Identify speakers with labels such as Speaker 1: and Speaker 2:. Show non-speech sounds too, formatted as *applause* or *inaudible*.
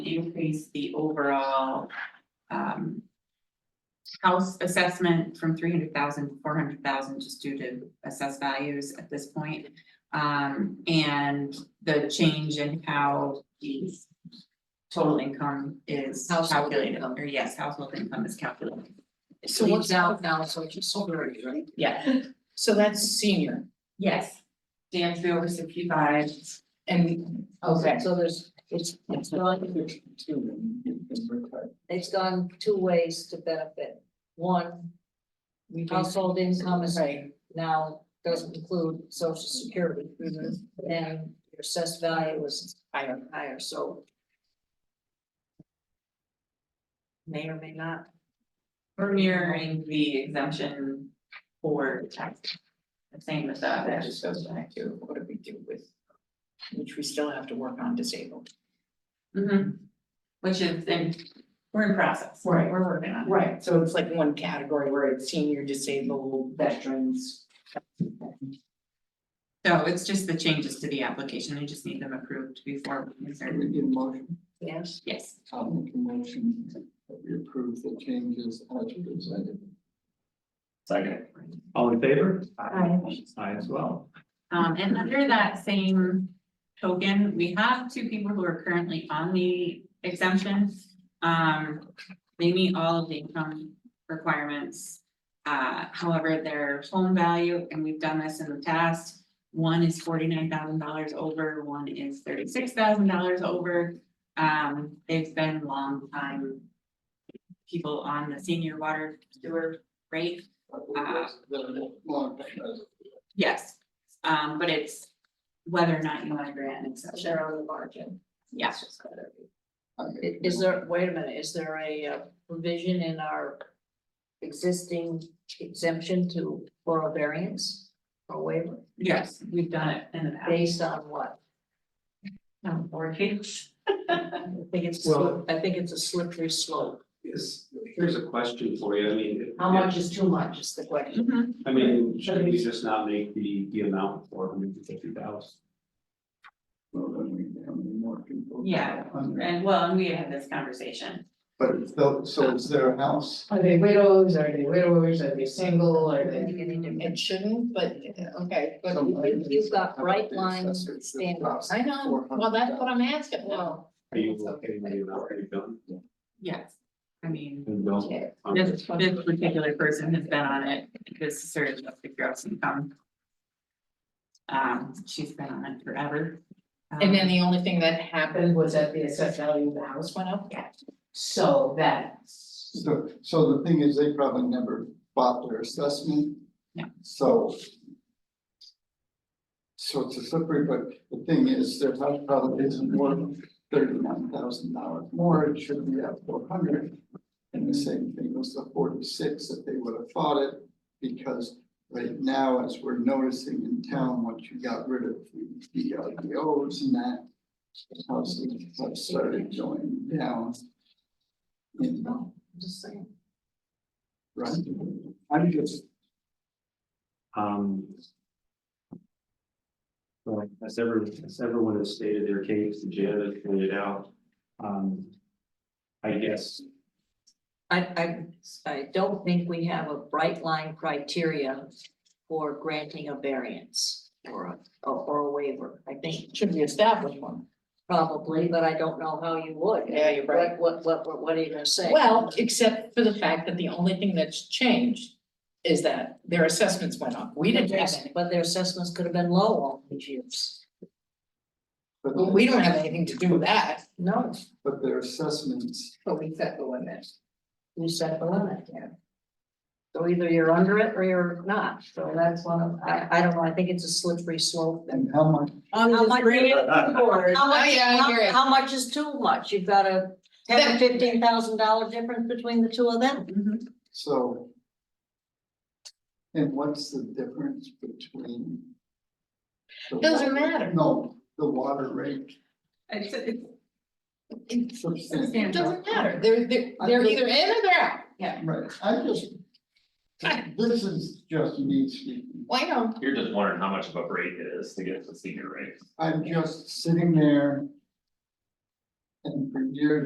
Speaker 1: increase the overall um. House assessment from three hundred thousand to four hundred thousand just due to assessed values at this point. Um, and the change in how the total income is
Speaker 2: Household
Speaker 1: calculated,
Speaker 2: income.
Speaker 1: or yes, household income is calculated,
Speaker 2: It
Speaker 3: So
Speaker 2: leaves
Speaker 3: what's
Speaker 2: out now, so it's just over, right?
Speaker 1: yeah.
Speaker 2: So that's senior
Speaker 1: Yes. Dan three over sixty-five,
Speaker 2: and, okay,
Speaker 3: Okay, so there's, it's, it's gone, it's gone two ways to benefit. One,
Speaker 2: we do.
Speaker 3: household income is
Speaker 2: Right.
Speaker 3: now doesn't include social security,
Speaker 2: Mhm.
Speaker 3: and your assessed value is
Speaker 2: Higher.
Speaker 3: higher, so. May or may not.
Speaker 1: we're mirroring the exemption for tax. The same as that.
Speaker 2: That just goes back to what do we do with, which we still have to work on disabled.
Speaker 1: Mhm. Which is, in we're in process,
Speaker 2: Right.
Speaker 1: we're working on it.
Speaker 2: Right, so it's like one category where it's senior, disabled, veterans.
Speaker 1: So it's just the changes to the application, I just need them approved before we can
Speaker 4: Can
Speaker 1: start.
Speaker 4: we get a motion,
Speaker 3: Yes.
Speaker 1: Yes,
Speaker 4: I'll make a motion that we approve the changes as presented.
Speaker 5: Second. All in favor?
Speaker 3: Aye.
Speaker 5: Aye as well.
Speaker 1: um, and under that same token, we have two people who are currently on the exemption. Um, they meet all of the income requirements. Uh, however, their home value, and we've done this in the past, one is forty-nine thousand dollars over, one is thirty-six thousand dollars over. Um, they've been long time people on the senior water sewer rate. Yes, um, but it's whether or not you want to grant an exception.
Speaker 3: They're on the margin.
Speaker 1: Yes.
Speaker 3: I- Is there, wait a minute, is there a uh, provision in our existing exemption to, for a variance or waiver,
Speaker 1: Yes, we've done it in the past.
Speaker 3: based on what?
Speaker 1: Um, Or case.
Speaker 3: *laughs* I think it's,
Speaker 5: Well-
Speaker 3: I think it's a slippery slope.
Speaker 5: Yes, here's a question for you, I mean.
Speaker 3: How much is too much is the question.
Speaker 1: Mhm.
Speaker 5: I mean, should we just not make the, the amount four hundred and fifty thousand?
Speaker 4: Well, then we have more people.
Speaker 1: Yeah, and well, and we had this conversation.
Speaker 4: But it's the, so it's their house,
Speaker 6: Are they widows, are they widowers, are they single, are they?
Speaker 2: It shouldn't, but, okay, but
Speaker 4: So-
Speaker 3: You- You've got
Speaker 4: How about
Speaker 3: right
Speaker 4: the
Speaker 3: line
Speaker 4: assessors that
Speaker 3: standards.
Speaker 2: I know, well, that's what I'm asking, well.
Speaker 5: Are you okay with the amount that you've done?
Speaker 1: Yes, I mean,
Speaker 5: And don't- um,
Speaker 3: Okay.
Speaker 1: this, this particular person has been on it because sort of the gross income. Um, she's been on it forever. Um,
Speaker 2: And then the only thing that happened
Speaker 6: Happened was that the assessed value of the house went up,
Speaker 1: Yeah.
Speaker 6: so that,
Speaker 4: So, so the thing is, they probably never bought their assessment.
Speaker 1: Yeah.
Speaker 4: So. So it's a slippery, but the thing is, their house probably isn't worth thirty-nine thousand dollars more, it should be at four hundred. And the same thing was the forty-six that they would have thought it, because right now, as we're noticing in town, once you got rid of the RPOs and that. Houses have started going down. In
Speaker 3: Just saying.
Speaker 4: Right, I'm just,
Speaker 5: Um. Like, as everyone, as everyone has stated their case, Janet pointed out, um. I guess,
Speaker 3: I, I, I don't think we have a bright line criteria for granting a variance or a, or a waiver. I think
Speaker 2: It Should be established one.
Speaker 3: probably, but I don't know how you would.
Speaker 2: Yeah, you're right.
Speaker 3: What, what, what, what are you gonna say?
Speaker 2: Well, except for the fact that the only thing that's changed is that their assessments went up. We didn't have any,
Speaker 3: But their assessments could have been low all these years.
Speaker 4: but
Speaker 2: but we don't have anything to do with that.
Speaker 3: No,
Speaker 4: but their assessments,
Speaker 2: But we set the limit.
Speaker 3: you set the limit, yeah. So either you're under it or you're not, so that's one of, I, I don't know, I think it's a slippery slope.
Speaker 4: and how much,
Speaker 3: How much, *laughs* how
Speaker 2: Oh,
Speaker 3: much,
Speaker 2: yeah, I hear
Speaker 3: how,
Speaker 2: it.
Speaker 3: how much is too much? You've got a ten,
Speaker 2: That-
Speaker 3: fifteen thousand dollar difference between the two of them?
Speaker 1: Mhm.
Speaker 4: so. And what's the difference between? the
Speaker 2: Doesn't
Speaker 4: water-
Speaker 2: matter.
Speaker 4: No, the water rate
Speaker 1: It's, it's,
Speaker 4: substantial,
Speaker 2: It doesn't matter. They're, they're, they're either in or they're out. Yeah.
Speaker 4: right, I just. This is just me speaking,
Speaker 2: Well, I know.
Speaker 7: You're just wondering how much of a break it is to get to senior rate.
Speaker 4: I'm just sitting there. And for years.